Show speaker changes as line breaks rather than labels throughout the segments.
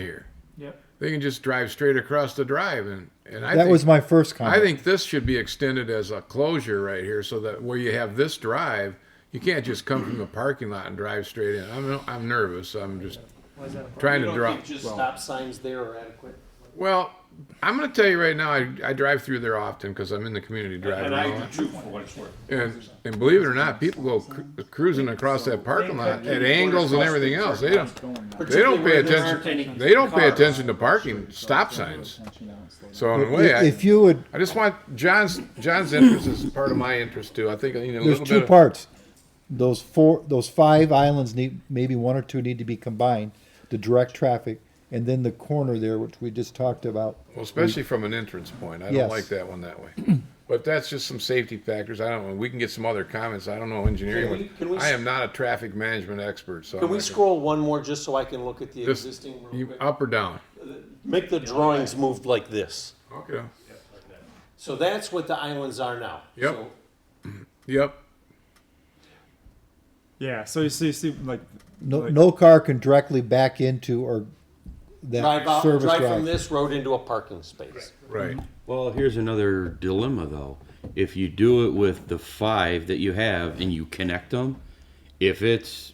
here.
Yep.
They can just drive straight across the drive, and and I
that
think,
was my first comment.
I think this should be extended as a closure right here, so that where you have this drive, you can't just come from the parking lot and drive straight in. I'm I'm nervous. I'm just
Why is that a problem?
trying
You
to
don't
drop.
think just stop signs there are adequate?
Well, I'm going to tell you right now, I, I drive through there often because I'm in the community driving.
And
a
I
lot.
do too, for what it's worth.
And, and believe it or not, people go cru- cruising across that parking lot at angles and everything else. They don't, they don't pay
Particularly where there aren't any
attention. They don't pay
cars.
attention to parking stop signs. So in a way,
if, if
I,
you would,
I just want John's, John's interest is part of my interest too. I think I need a
there's
little
two
bit of.
parts. Those four, those five islands need maybe one or two need to be combined to direct traffic, and then the corner there, which we just talked about.
Well, especially from an entrance point. I don't
Yes.
like that one that way. But that's just some safety factors. I don't know. We can get some other comments. I don't know engineering.
Can we-
but
can we-
I am not a traffic management expert, so. I'm
Can we
not gonna-
scroll one more just so I can look at the
This-
existing? real
you- uh,
quick?
Up or down?
Make the drawings move like this.
Okay.
So that's what the islands are now.
Yep.
So
Yep.
Yeah. So you see, you see like
No,
Like-
no car can directly back into or
Drive
that
out,
service
drive from
drive.
this road into a parking space.
Right.
Well, here's another dilemma though. If you do it with the five that you have and you connect them, if it's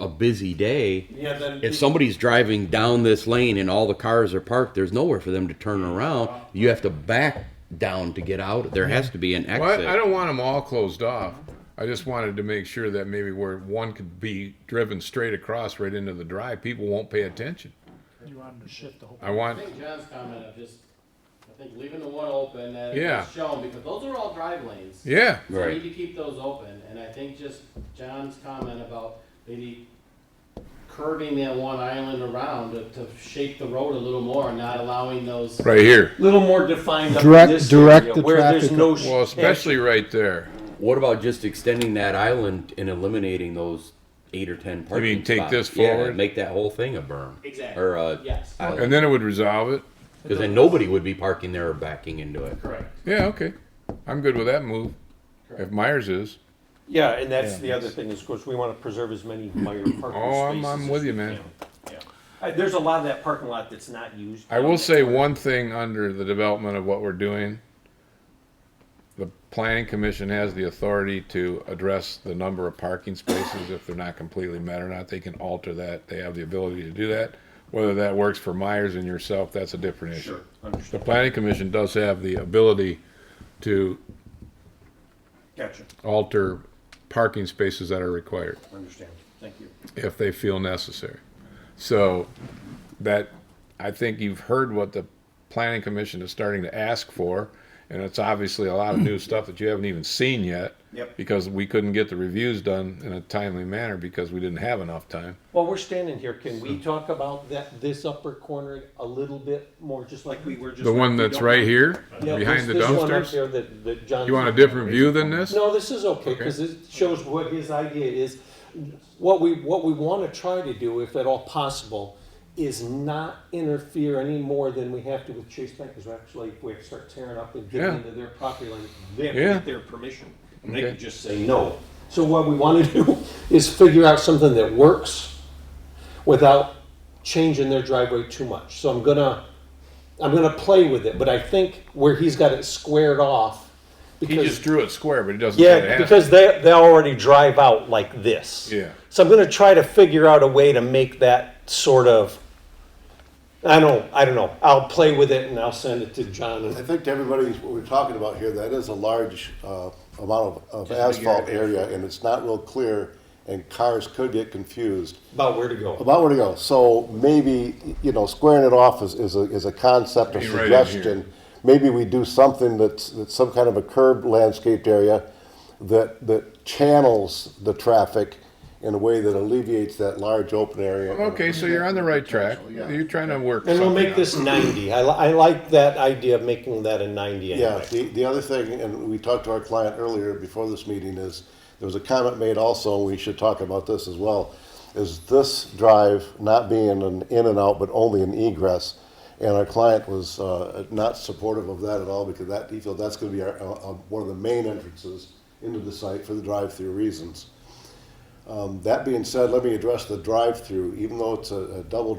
a busy day,
Yeah, then.
if somebody's driving down this lane and all the cars are parked, there's nowhere for them to turn around. You have to back down to get out. There has to be an exit.
Well, I- I don't want them all closed off. I just wanted to make sure that maybe where one could be driven straight across right into the drive, people won't pay attention.
you wanted to shift the whole.
I want,
I think John's comment of just, I think leaving the one open that
Yeah.
is shown, because those are all drive lanes.
yeah,
So we
Right.
need to keep those open, and I think just John's comment about maybe curving that one island around to, to shape the road a little more, and not allowing those.
right here.
Little more defined up in
Direct-
this
direct
area
the
where there's
traffic.
no. sh-
Well, especially right there.
What about just extending that island and eliminating those eight or ten parking
mean take
spots?
this
Yeah,
forward?
make that whole thing a berm.
Exactly.
Or a
Yes.
And then it would resolve it.
Because then nobody would be parking there or backing into it.
Correct.
Yeah, okay. I'm good with that move. If Myers is.
Yeah, and that's the other thing is, of course, we want to preserve as many Meyer parking spaces.
Oh, I'm, I'm
as
with
we
you, man.
can. Uh, There's a lot of that parking lot that's not used.
I will say one thing under the development of what we're doing. The planning commission has the authority to address the number of parking spaces if they're not completely met or not. They can alter that. They have the ability to do that. Whether that works for Myers and yourself, that's a different issue. The planning commission does have the ability to
Gotcha,
alter parking spaces that are required
understand, thank you.
if they feel necessary. So that, I think you've heard what the planning commission is starting to ask for. And it's obviously a lot of new stuff that you haven't even seen yet.
Yep.
Because we couldn't get the reviews done in a timely manner because we didn't have enough time.
While we're standing here, can we talk about that, this upper corner a little bit more, just like we were just.
The one
we
that's
don't-
right here,
Yeah,
behind the
this- This one up
dumpsters?
there that, that John.
You want a different view than this?
No, this is okay, because it shows what his idea is. What we, what we want to try to do, if at all possible, is not interfere any more than we have to with Chase Bank, because actually, if we start tearing up and
Yeah.
getting into their property line, they have to
Yeah.
get their permission. And they
Okay.
could just say no. So what we want to do is figure out something that works without changing their driveway too much. So I'm gonna, I'm gonna play with it, but I think where he's got it squared off.
He
because.
just drew it square, but he doesn't say it
Yeah,
has. to.
because they, they already drive out like this.
Yeah.
So I'm gonna try to figure out a way to make that sort of, I don't, I don't know, I'll play with it and I'll send it to John.
I
and-
think to everybody, what we're talking about here, that is a large uh, amount of of asphalt area, and it's not real clear, and cars could get confused
About where to go.
about where to go. So maybe, you know, squaring it off is, is a, is a concept or
Be right in here.
suggestion. Maybe we do something that's, that's some kind of a curb landscaped area that, that channels the traffic in a way that alleviates that large open area.
Okay, so you're on the right track. You're trying to work
And we'll make
something out.
this ninety, I, li- I like that idea of making that a ninety
Yeah,
anyway.
the, the other thing, and we talked to our client earlier before this meeting, is there was a comment made also, we should talk about this as well, is this drive not being an in and out, but only an egress. And our client was uh, not supportive of that at all because that, he felt that's going to be our, uh, uh, one of the main entrances into the site for the drive-through reasons. Um, That being said, let me address the drive-through, even though it's a a double